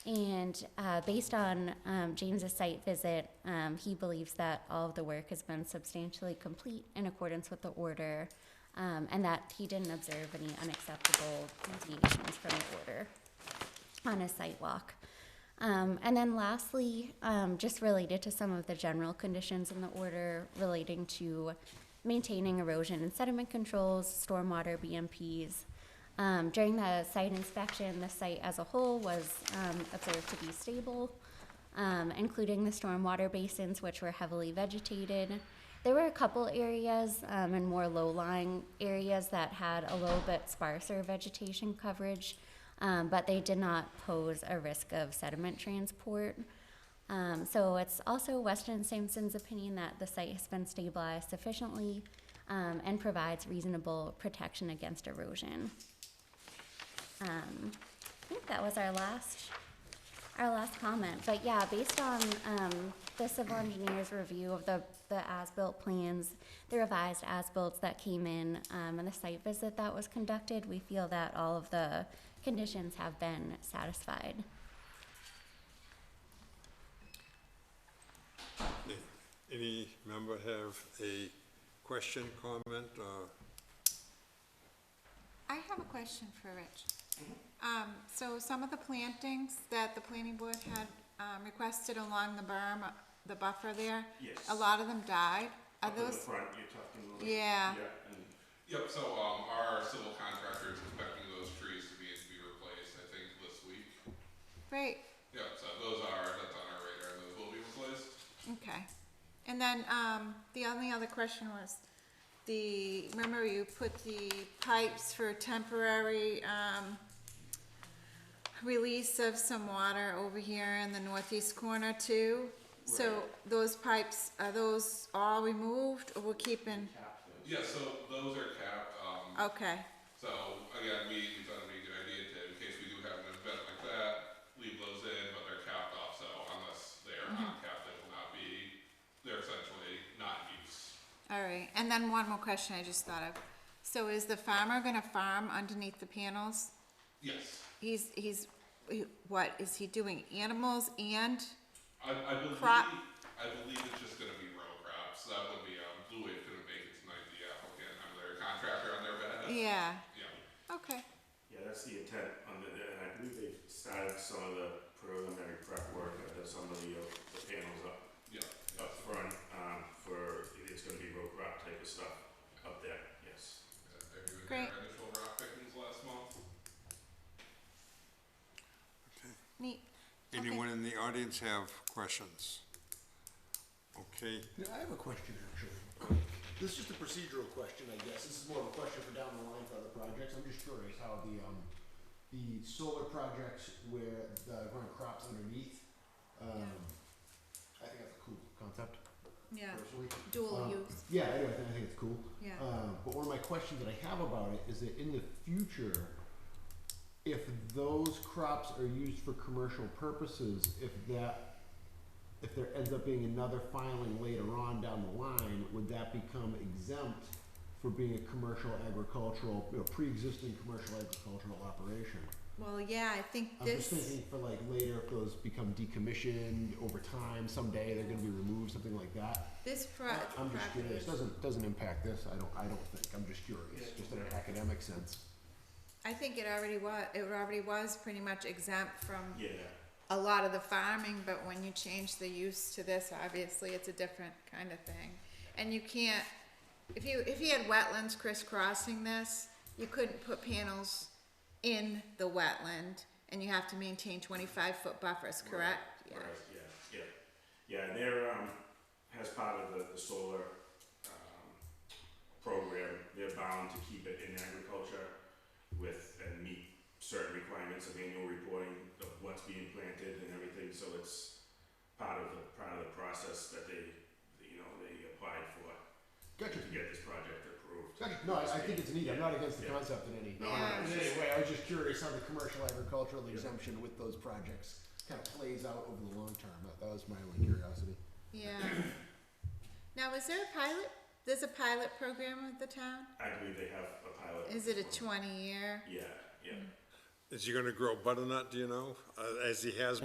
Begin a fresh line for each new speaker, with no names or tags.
And uh, based on um, James's site visit, um, he believes that all of the work has been substantially complete in accordance with the order, um, and that he didn't observe any unacceptable deviations from the order on a site walk. Um, and then lastly, um, just related to some of the general conditions in the order relating to maintaining erosion and sediment controls, stormwater BMPs. Um, during the site inspection, the site as a whole was um, observed to be stable, um, including the stormwater basins, which were heavily vegetated. There were a couple areas um, and more low-lying areas that had a little bit sparser vegetation coverage, um, but they did not pose a risk of sediment transport. Um, so it's also Weston Sampson's opinion that the site has been stabilized sufficiently um, and provides reasonable protection against erosion. Um, I think that was our last, our last comment, but yeah, based on, um, the civil engineer's review of the, the as-built plans, the revised as-built that came in, um, and the site visit that was conducted, we feel that all of the conditions have been satisfied.
Any member have a question, comment, or?
I have a question for Rich. Um, so some of the plantings that the planning board had, um, requested along the berm, uh, the buffer there.
Yes.
A lot of them died. Are
Up in the
those,
front, you're talking about.
Yeah.
Yeah, and
Yep, so, um, our civil contractor is expecting those trees to be, to be replaced, I think, this week.
great,
Yep, so those are, that's on our radar, those will be replaced.
okay. And then, um, the only other question was, the, remember you put the pipes for temporary, um, release of some water over here in the northeast corner too? So those pipes, are those all removed or we're keeping?
Yeah, so those are capped, um,
Okay,
so, again, we, we thought it'd be a good idea to, in case we do have an event like that, leave those in, but they're capped off, so unless they are uncapped, they will not be, they're essentially not in use.
all right, and then one more question I just thought of. So is the farmer gonna farm underneath the panels?
Yes,
He's, he's, he- what, is he doing animals and,
I, I believe,
Crop-
I believe it's just gonna be row crops, that would be, um, Blue Wave couldn't make it tonight, the applicant, I'm their contractor on their behalf.
yeah,
Yeah,
okay,
yeah, that's the intent under there, and I believe they started some of the preliminary prep work, I did some of the, uh, the panels up,
yeah,
up front, um, for, it's gonna be row crop type of stuff up there, yes.
Have you been
Great.
there initial rock pickings last month?
neat. Okay.
Anyone in the audience have questions? Okay,
Yeah, I have a question actually. This is just a procedural question, I guess. This is more of a question for down the line for other projects. I'm just curious how the um, the solar projects where the growing crops underneath. Um, I think that's a cool concept
Yeah,
personally.
dual
Um,
use,
Yeah, I, do. I think, I think it's cool.
Yeah.
Um, but one of my questions that I have about it is that in the future, if those crops are used for commercial purposes, if that, if there ends up being another filing later on down the line, would that become exempt for being a commercial agricultural, you know, pre-existing commercial agricultural operation?
well, yeah, I think
I'm just
this,
thinking for like later, if those become decommissioned over time, someday they're gonna be removed, something like that.
this pro-
I'm just
property
curious,
is-
doesn't, doesn't impact this, I don't, I don't think, I'm just curious, just in an academic sense.
I think it already was, it already was pretty much exempt from
Yeah,
a lot of the farming, but when you change the use to this, obviously, it's a different kind of thing. And you can't, if you, if you had wetlands crisscrossing this, you couldn't put panels in the wetland, and you have to maintain twenty-five foot buffers, correct? Yeah.
right, yeah, yeah, yeah, and they're, um, as part of the, the solar, um, program, they're bound to keep it in agriculture with, and meet certain requirements of annual reporting of what's being planted and everything, so it's part of the, part of the process that they, you know, they applied for
Gotcha,
to get this project approved.
gotcha, no, I, I think it's neat, I'm not against the concept in any, in
No, no,
Yeah.
it's just-
any way, I was just curious how the commercial agricultural exemption with those projects kind of plays out over the long term, that, that was my only curiosity.
Yeah. Now, is there a pilot, there's a pilot program with the town?
I believe they have a Mm. pilot.
Is it a twenty-year?
Yeah, yeah,
Is he gonna grow butternut, do you know, uh, as he has